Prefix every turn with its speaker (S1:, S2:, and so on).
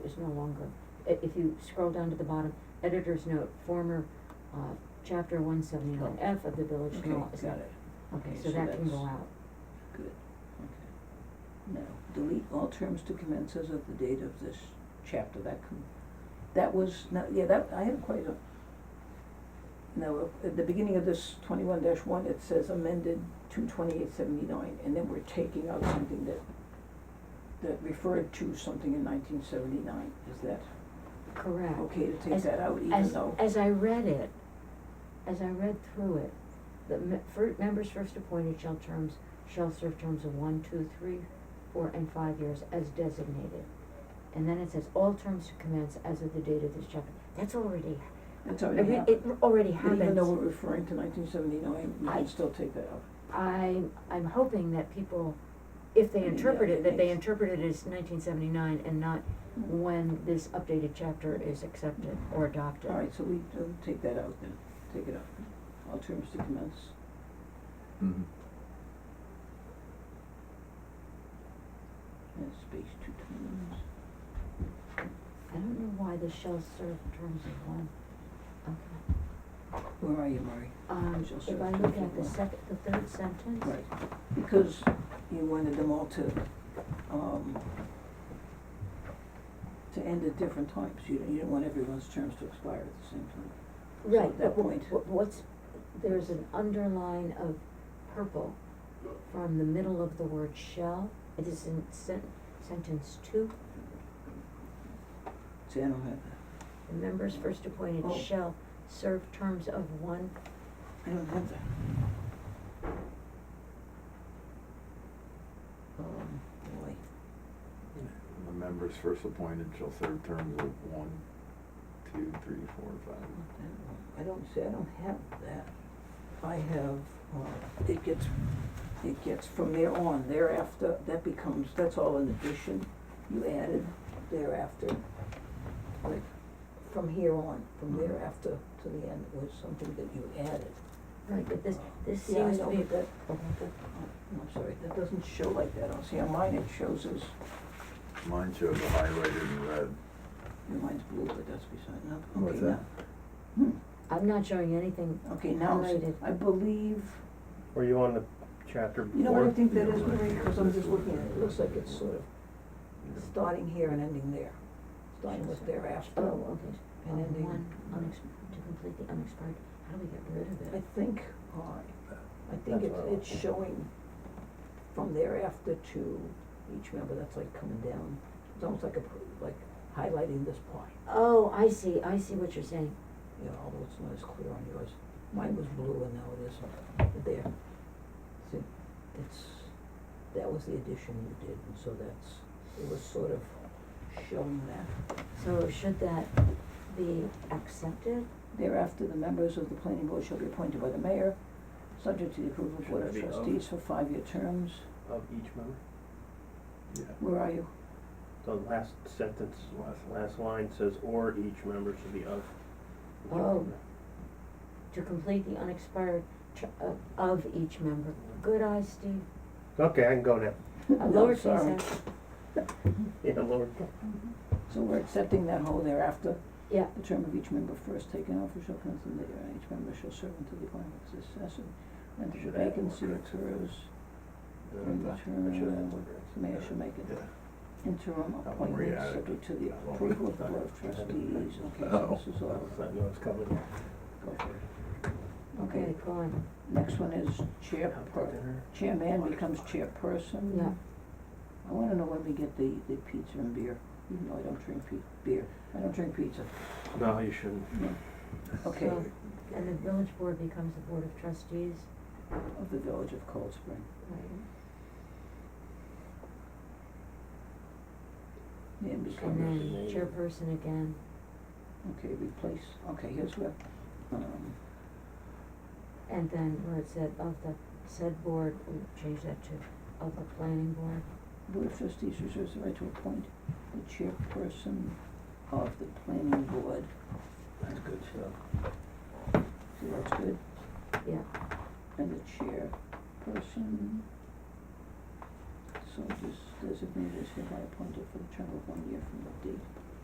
S1: no longer, i- if you scroll down to the bottom, editor's note, former, uh, chapter one seventy-nine F of the village
S2: Oh. Okay,
S1: law. is
S2: got
S1: not-
S2: it.
S1: Okay,
S2: Okay,
S1: so
S2: so
S1: that can
S2: that's-
S1: go out.
S2: Good, okay. Now, delete all terms to commence as of the date of this chapter, that com- that was, no, yeah, that, I had quite a. Now, at the beginning of this twenty-one one, it says amended to twenty-eight seventy-nine, and then we're taking out something that, that referred to something in nineteen seventy-nine, is that
S1: Correct.
S2: okay to take
S1: As-
S2: that out, even
S1: As,
S2: though?
S1: as I read it, as I read through it, the me- fir- members first appointed shall terms, shall serve terms of one, two, three, four, and five years as designated. And then it says, all terms to commence as of the date of this chapter, that's already,
S2: It's
S1: I
S2: already
S1: mean,
S2: happened.
S1: it already
S2: But Even though
S1: happens.
S2: we're referring to nineteen seventy-nine, we
S1: I-
S2: can still take that out.
S1: I, I'm hoping that people, if they
S2: Yeah,
S1: interpret it, that they
S2: thanks.
S1: interpret it as nineteen seventy-nine and not when this updated chapter is accepted or adopted.
S2: All right, so we uh, take that out then, take it out. All terms to commence.
S3: Mm-hmm.
S2: And space two times.
S1: I don't know why the shall serve terms of one. Okay.
S2: Where are you, Murray?
S1: Um,
S2: Shall
S1: if
S2: serve
S1: I
S2: terms
S1: look
S2: of
S1: at the
S2: one.
S1: second, the third sentence.
S2: Right, because you wanted them all to, um, to end at different times. You didn't, you didn't want everyone's terms to expire at the same time.
S1: Right, but
S2: at that
S1: wh-
S2: point.
S1: wh- what's, there's an underline of purple from the middle of the word shall. It is in sen- sentence two,
S2: See, I don't have that.
S1: the members first appointed
S2: Oh.
S1: shall serve terms of one.
S2: I don't have that. Um, boy.
S3: The members first appointed shall serve terms of one, two, three, four, five.
S2: Not that one. I don't see, I don't have that. I have, uh, it gets, it gets from there on, thereafter, that becomes, that's all an addition. You added thereafter, like, from here on, from
S3: Mhm.
S2: thereafter to the end was something that you added.
S1: Right, but this, this
S2: Yeah, I
S1: seems to
S2: know,
S1: be.
S2: but that-
S1: Okay.
S2: oh, I'm sorry, that doesn't show like that on, see, on mine it shows as,
S3: Mine shows a highlighted in red.
S2: mine's blue, but that's beside, no, okay, now.
S3: What's that?
S2: Hmm,
S1: I'm not showing anything.
S2: okay, now, it's-
S1: Highlighted.
S2: I believe,
S4: Were you on the chapter before?
S2: You know what I think that
S3: Yeah,
S2: is,
S3: right.
S2: Marie, because I'm just looking at it, it looks like it's sort of starting here and ending there, starting with thereafter.
S1: Oh, okay.
S2: And
S1: Uh,
S2: ending.
S1: One, unex, to complete the unexpired, how do we get rid of it?
S2: I think, uh, I think
S4: That's
S2: it's,
S4: what I
S2: it's
S4: want.
S2: showing from thereafter to each member, that's like coming down, it's almost like a, pr- like highlighting this pie.
S1: Oh, I see, I see what you're saying.
S2: You know, although it's not as clear on yours, mine was blue and now it isn't, there. See, it's, that was the addition you did, and so that's, it was sort of showing that.
S1: So should that be accepted?
S2: Thereafter, the members of the planning board shall be appointed by the mayor, subject to the approval of board of
S4: Should it be of?
S2: trustees for five-year terms.
S4: Of each member?
S3: Yeah.
S2: Where are you?
S4: The last sentence,
S3: Last line.
S4: last line says, or each member should be of. each
S1: Oh.
S4: member."
S1: To complete the unexpired tr- of, of each member. Good eye, Steve.
S4: Okay, I can go now.
S1: A
S2: No,
S1: lowercase
S2: sorry.
S1: f.
S2: Mm-hmm.
S4: Yeah, Lord.
S2: So we're accepting that whole thereafter.
S1: Yeah,
S2: The term of each member first taken off shall commence in the year, and each member shall serve until the appointment of his successor, and if
S3: Should
S2: the
S3: add one,
S2: vacancy
S3: correct?
S2: occurs,
S3: Yeah,
S2: during the
S3: that-
S2: term,
S3: that should
S2: uh,
S3: have one.
S2: the mayor shall make an
S3: Yeah.
S2: interim
S3: That one we
S2: appointment
S3: added.
S2: subject to the
S3: That one we
S2: approval of the board of
S4: added.
S2: trustees. Okay,
S3: Oh.
S2: so this is all.
S4: I know it's coming.
S2: Go for it.
S1: okay, go on.
S2: Next one is chair,
S4: I'll
S2: per-
S4: talk to her.
S2: chairman becomes chairperson.
S1: Yeah.
S2: I wanna know when we get the, the pizza and beer, even though I don't drink pe- beer, I don't drink pizza.
S4: No, you shouldn't.
S2: No. Okay,
S1: So, And the village board becomes the board of trustees.
S2: of the village of Cold Spring.
S1: Right.
S2: Name
S1: And
S2: becomes,
S1: then chairperson again.
S2: okay, replace, okay, here's where, um,
S1: And then where it said of the said board, we change that to of the planning board.
S2: board of trustees reserves the right to appoint the chairperson of the planning board.
S4: That's good stuff.
S2: So that's good.
S1: Yeah.
S2: And the chairperson, so this designated is hereby appointed for the term of one year from the date